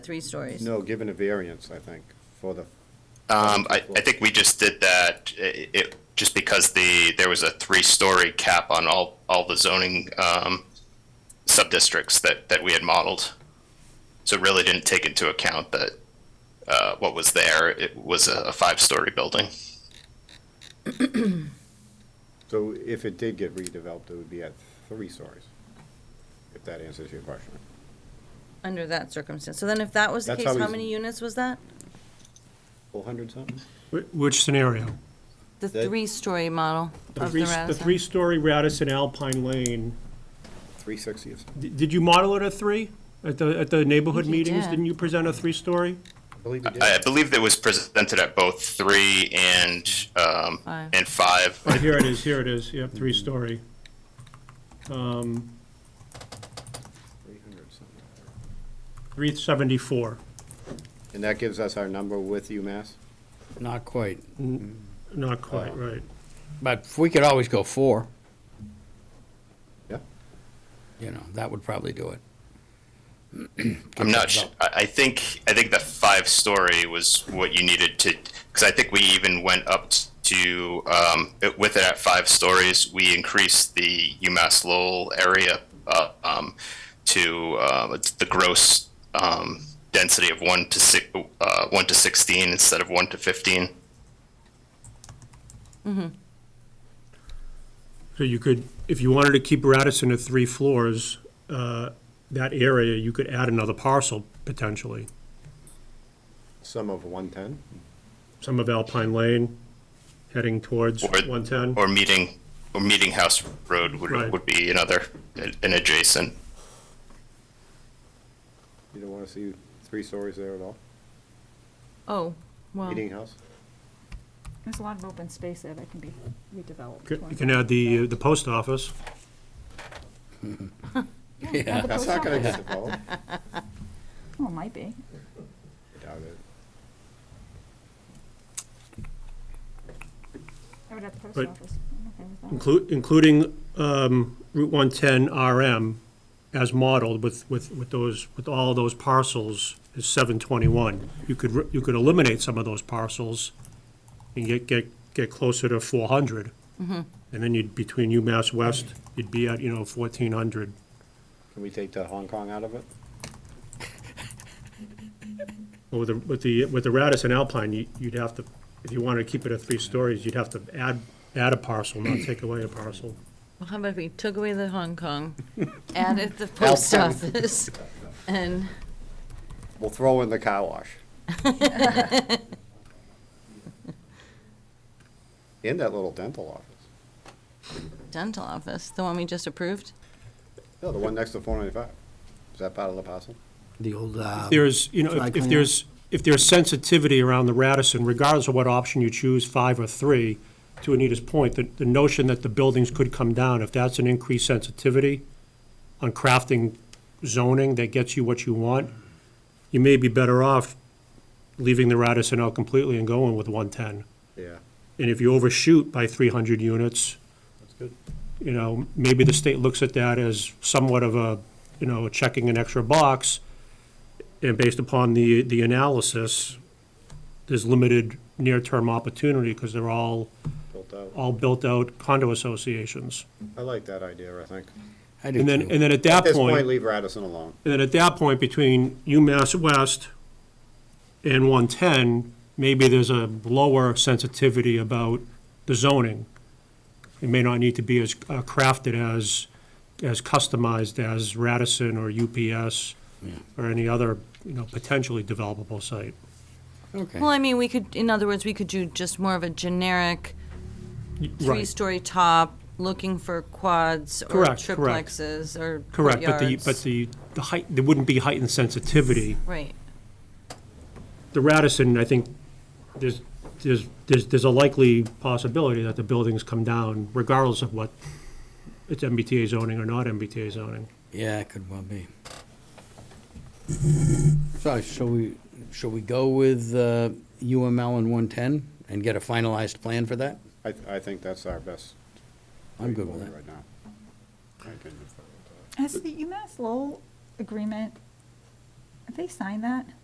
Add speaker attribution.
Speaker 1: three stories.
Speaker 2: No, given a variance, I think, for the,
Speaker 3: Um, I, I think we just did that, it, it, just because the, there was a three-story cap on all, all the zoning, um, sub-districts that, that we had modeled. So it really didn't take into account that, uh, what was there, it was a, a five-story building.
Speaker 2: so if it did get redeveloped, it would be at three stories, if that answers your question.
Speaker 1: Under that circumstance. So then if that was the
Speaker 2: That's
Speaker 1: case,
Speaker 2: how
Speaker 1: how
Speaker 2: he's-
Speaker 1: many units was that?
Speaker 2: Four hundred something?
Speaker 4: Wh- Which scenario?
Speaker 1: The
Speaker 2: That-
Speaker 1: three-story model
Speaker 4: The
Speaker 1: of the
Speaker 4: three, the
Speaker 1: Radisson?
Speaker 4: three-story Radisson Alpine Lane,
Speaker 2: Three sixty or something?
Speaker 4: D- did you model it at three? At the, at the neighborhood
Speaker 1: think you
Speaker 4: meetings,
Speaker 1: did.
Speaker 4: didn't you present a three-story?
Speaker 2: I believe you did.
Speaker 3: I I believe that was presented at both three and, um,
Speaker 1: Five.
Speaker 3: and five.
Speaker 4: Oh, here it is, here it is, yep, three-story.
Speaker 2: Three hundred something.
Speaker 4: 374,
Speaker 2: And that gives us our number with UMass?
Speaker 5: Not quite,
Speaker 4: not
Speaker 1: Oh.
Speaker 4: quite, right.
Speaker 5: but we could always go four,
Speaker 2: Yeah.
Speaker 5: you know, that would probably do it.
Speaker 3: I'm not. Sh- I I think I think the five story was what you needed to because I think we even went up to um, it- with it at five stories. We increased the UMass Lowell area uh, um, to uh, it's the gross um, density of one to six, uh, one to sixteen instead of one to fifteen.
Speaker 4: So you could, if you wanted to keep Radisson at three floors, uh, that area, you could add another parcel potentially.
Speaker 2: Sum of one ten?
Speaker 4: Some of Alpine Lane heading towards
Speaker 3: Or-
Speaker 4: 110.
Speaker 3: Or meeting or meeting house road would
Speaker 4: Right.
Speaker 3: would be another an adjacent.
Speaker 2: You don't wanna see three stories there at all?
Speaker 1: Oh, well,
Speaker 2: Meeting house?
Speaker 6: There's a lot of open space there that can be redeveloped.
Speaker 4: Could- You can add the, uh, the post office.
Speaker 5: Yeah,
Speaker 2: That's not gonna get developed. I
Speaker 6: Well, Oh, it might be.
Speaker 2: doubt it.
Speaker 6: I would have the post
Speaker 4: But-
Speaker 6: office. I'm okay with that.
Speaker 4: Inclu- Including um, Route 110 RM as modeled with, with, with those, with all those parcels is 721. You could, re- you could eliminate some of those parcels and get, get, get closer to 400. And then you'd, between UMass West, you'd be at, you know, 1,400.
Speaker 2: Can we take the Hong Kong out of it?
Speaker 4: But With the, with the, with the Radisson Alpine, you- you'd have to, if you wanted to keep it at three stories, you'd have to add, add a parcel, not take away a parcel.
Speaker 1: well, how about if we took away the Hong Kong, added the post office, and,
Speaker 2: We'll throw in the car wash. And that little dental office.
Speaker 1: dental office, the one we just approved?
Speaker 2: Yeah, the one next to four ninety-five. Is that part of the parcel?
Speaker 5: the old, uh,
Speaker 4: there's, you know,
Speaker 5: Dry
Speaker 4: if- if
Speaker 5: cleaner.
Speaker 4: there's, if there's sensitivity around the Radisson, regardless of what option you choose, five or three, to Anita's point, the, the notion that the buildings could come down, if that's an increased sensitivity on crafting zoning that gets you what you want, you may be better off leaving the Radisson out completely and going with one-ten.
Speaker 2: Yeah.
Speaker 4: And if you overshoot by three hundred units,
Speaker 2: That's good.
Speaker 4: you know, maybe the state looks at that as somewhat of a, you know, checking an extra box. And based upon the, the analysis, there's limited near-term opportunity because they're all,
Speaker 2: Built out.
Speaker 4: all built-out condo associations.
Speaker 2: I like that idea, I think.
Speaker 5: I do
Speaker 4: And then,
Speaker 5: too.
Speaker 4: and then at that
Speaker 2: At this
Speaker 4: point.
Speaker 2: point, leave Radisson alone.
Speaker 4: And then at that point, between UMass West and 110, maybe there's a lower sensitivity about the zoning. It may not need to be as uh, crafted as, as customized as Radisson or UPS or any other, you know, potentially developable site.
Speaker 1: Well,
Speaker 5: Okay,
Speaker 1: I mean, we could, in other words, we could do just more of a generic
Speaker 4: Right,
Speaker 1: three-story top, looking for quads or
Speaker 4: Correct, correct.
Speaker 1: triplexes or
Speaker 4: correct, but the, but
Speaker 1: courtyards.
Speaker 4: the, the height, there wouldn't be heightened sensitivity.
Speaker 1: Right,
Speaker 4: the Radisson, I think, there's, there's, there's, there's a likely possibility that the buildings come down regardless of what, it's MBTA zoning or not MBTA zoning.
Speaker 5: yeah, it could well be. So, shall we, shall we go with uh, UML and 110 and get a finalized plan for that?
Speaker 2: I, th- I think that's our best.
Speaker 5: I'm good
Speaker 2: way
Speaker 5: with that.
Speaker 2: Right now. I can-
Speaker 6: E Has the UMass Lowell agreement, Have they signed that?